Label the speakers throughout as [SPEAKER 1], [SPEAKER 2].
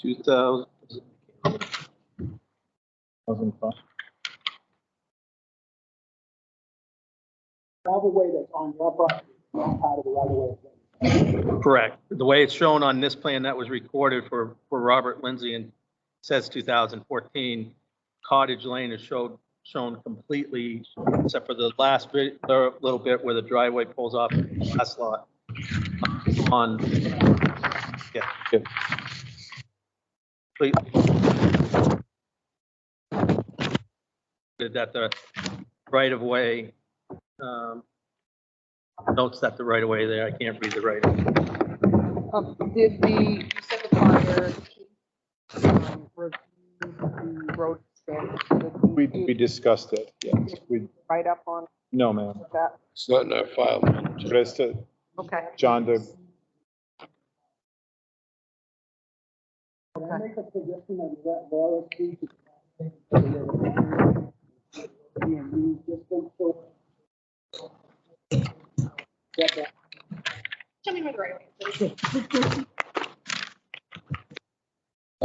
[SPEAKER 1] Two thousand. Thousand five.
[SPEAKER 2] driveway that's on your property, not part of the right of way.
[SPEAKER 1] Correct. The way it's shown on this plan that was recorded for, for Robert Lindsay and says 2014, Cottage Lane is showed, shown completely, except for the last bit, the little bit where the driveway pulls off the last lot. On, yeah.
[SPEAKER 3] Good.
[SPEAKER 1] Completely. That the right of way, um, notes that the right of way there, I can't read the right of way.
[SPEAKER 4] Um, did the, you said the fire, um, review the road standards? Did
[SPEAKER 3] We,
[SPEAKER 4] you
[SPEAKER 3] we discussed it, yes. We,
[SPEAKER 4] Write up on
[SPEAKER 3] no, ma'am.
[SPEAKER 4] that,
[SPEAKER 5] It's not in our file.
[SPEAKER 3] But it's, uh,
[SPEAKER 4] okay.
[SPEAKER 3] John, the,
[SPEAKER 2] Can I make a suggestion that that Laura speak? And you just don't show. Get that.
[SPEAKER 6] Tell me where the right way is.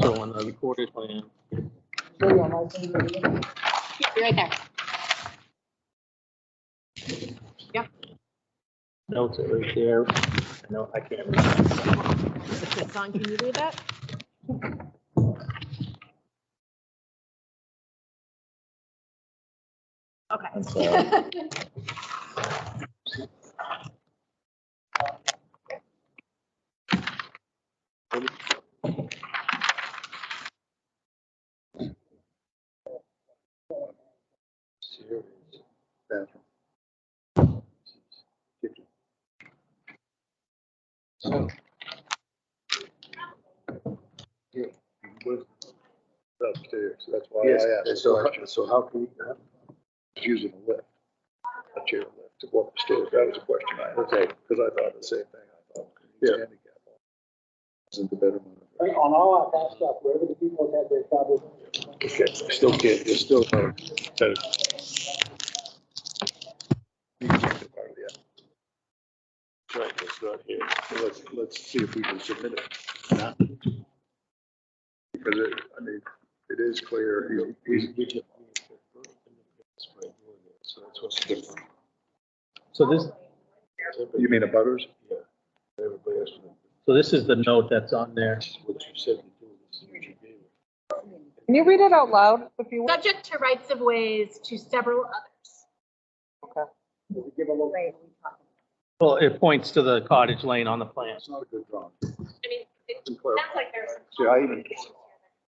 [SPEAKER 1] So on the recorded plan.
[SPEAKER 2] Show on my finger.
[SPEAKER 6] Yeah, Be right there.
[SPEAKER 1] Notes it right there. No, I can't read.
[SPEAKER 6] Don, can you read that?
[SPEAKER 3] I'm sorry.
[SPEAKER 6] Okay.
[SPEAKER 5] Upstairs, that's why I asked. So, so how can we? Using a lift, a chair lift to walk upstairs, that was a question I had. Okay. Because I thought the same thing. Yeah. Isn't the better one?
[SPEAKER 2] Right, On all our back stuff, wherever the people have their troubles.
[SPEAKER 5] Okay, still can't, there's still no. Right, it's not here. So Let's, let's see if we can submit it. Because it, I mean, it is clear. He's.
[SPEAKER 1] So this,
[SPEAKER 5] You mean a butters? Yeah.
[SPEAKER 1] so this is the note that's on there.
[SPEAKER 5] What you said.
[SPEAKER 4] Can you read it out loud if you want?
[SPEAKER 6] Subject to rights of ways to several others.
[SPEAKER 2] Give a little.
[SPEAKER 6] Right.
[SPEAKER 1] Well, it points to the cottage lane on the plan.
[SPEAKER 5] It's not a good drawing.
[SPEAKER 6] I mean, it
[SPEAKER 5] It's
[SPEAKER 6] sounds
[SPEAKER 5] clear.
[SPEAKER 6] like there's some.
[SPEAKER 5] See, I even- If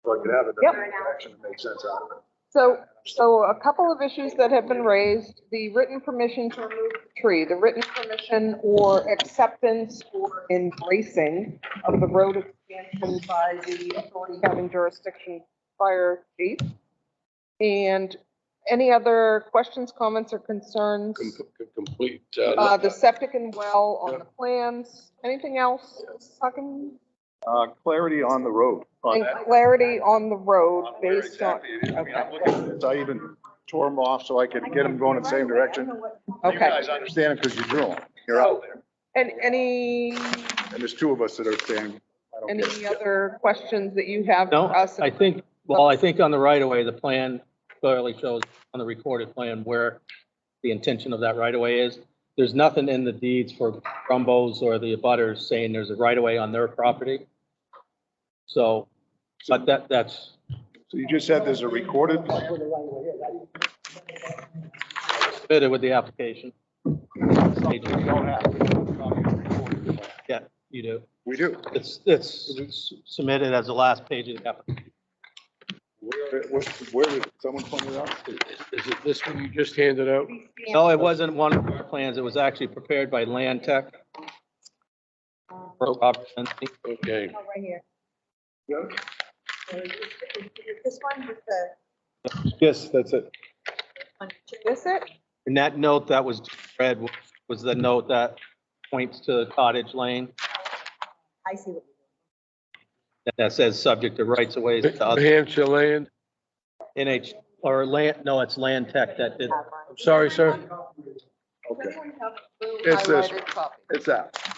[SPEAKER 5] I could have it,
[SPEAKER 4] Yep.
[SPEAKER 5] that action that makes sense out of it.
[SPEAKER 4] So, so a couple of issues that have been raised, the written permission to remove the tree, the written permission or acceptance or embracing of the road expansion by the authority having jurisdiction fire chief. And any other questions, comments, or concerns?
[SPEAKER 5] Complete.
[SPEAKER 4] Uh, the septic and well on the plans, anything else? Talking,
[SPEAKER 3] Uh, clarity on the road.
[SPEAKER 4] and clarity on the road based on, okay,
[SPEAKER 3] I even tore them off so I could get them going in the same direction. You
[SPEAKER 4] okay.
[SPEAKER 3] guys understand it because you drew them. You're out there.
[SPEAKER 4] And any,
[SPEAKER 3] And there's two of us that are saying, I don't
[SPEAKER 4] any
[SPEAKER 3] care.
[SPEAKER 4] other questions that you have
[SPEAKER 1] No,
[SPEAKER 4] for us?
[SPEAKER 1] I think, well, I think on the right of way, the plan clearly shows on the recorded plan where the intention of that right of way is. There's nothing in the deeds for Brumbos or the abutters saying there's a right of way on their property. So, but that, that's,
[SPEAKER 3] So you just said there's a recorded,
[SPEAKER 2] That's where the right way is. I didn't-
[SPEAKER 1] fitted with the application.
[SPEAKER 3] we don't have.
[SPEAKER 1] You do.
[SPEAKER 3] We do.
[SPEAKER 1] It's, it's submitted as the last page of the application.
[SPEAKER 3] Where, where- where, did someone pointed out?
[SPEAKER 7] Is it this one you just handed out?
[SPEAKER 1] No, it wasn't one of our plans. It was actually prepared by Land Tech. Robert Lindsay.
[SPEAKER 7] Okay.
[SPEAKER 6] Right here.
[SPEAKER 3] Yeah.
[SPEAKER 6] This one with the.
[SPEAKER 3] Yes, that's it.
[SPEAKER 4] Is it?
[SPEAKER 1] And that note that was read was the note that points to Cottage Lane
[SPEAKER 6] I see what.
[SPEAKER 1] that says subject to rights of ways to
[SPEAKER 7] New
[SPEAKER 1] other
[SPEAKER 7] Hampshire Land,
[SPEAKER 1] NH, or Land, no, it's Land Tech that did.
[SPEAKER 7] sorry, sir.
[SPEAKER 3] Okay. It's this,
[SPEAKER 4] Highlighted copy.
[SPEAKER 3] it's that.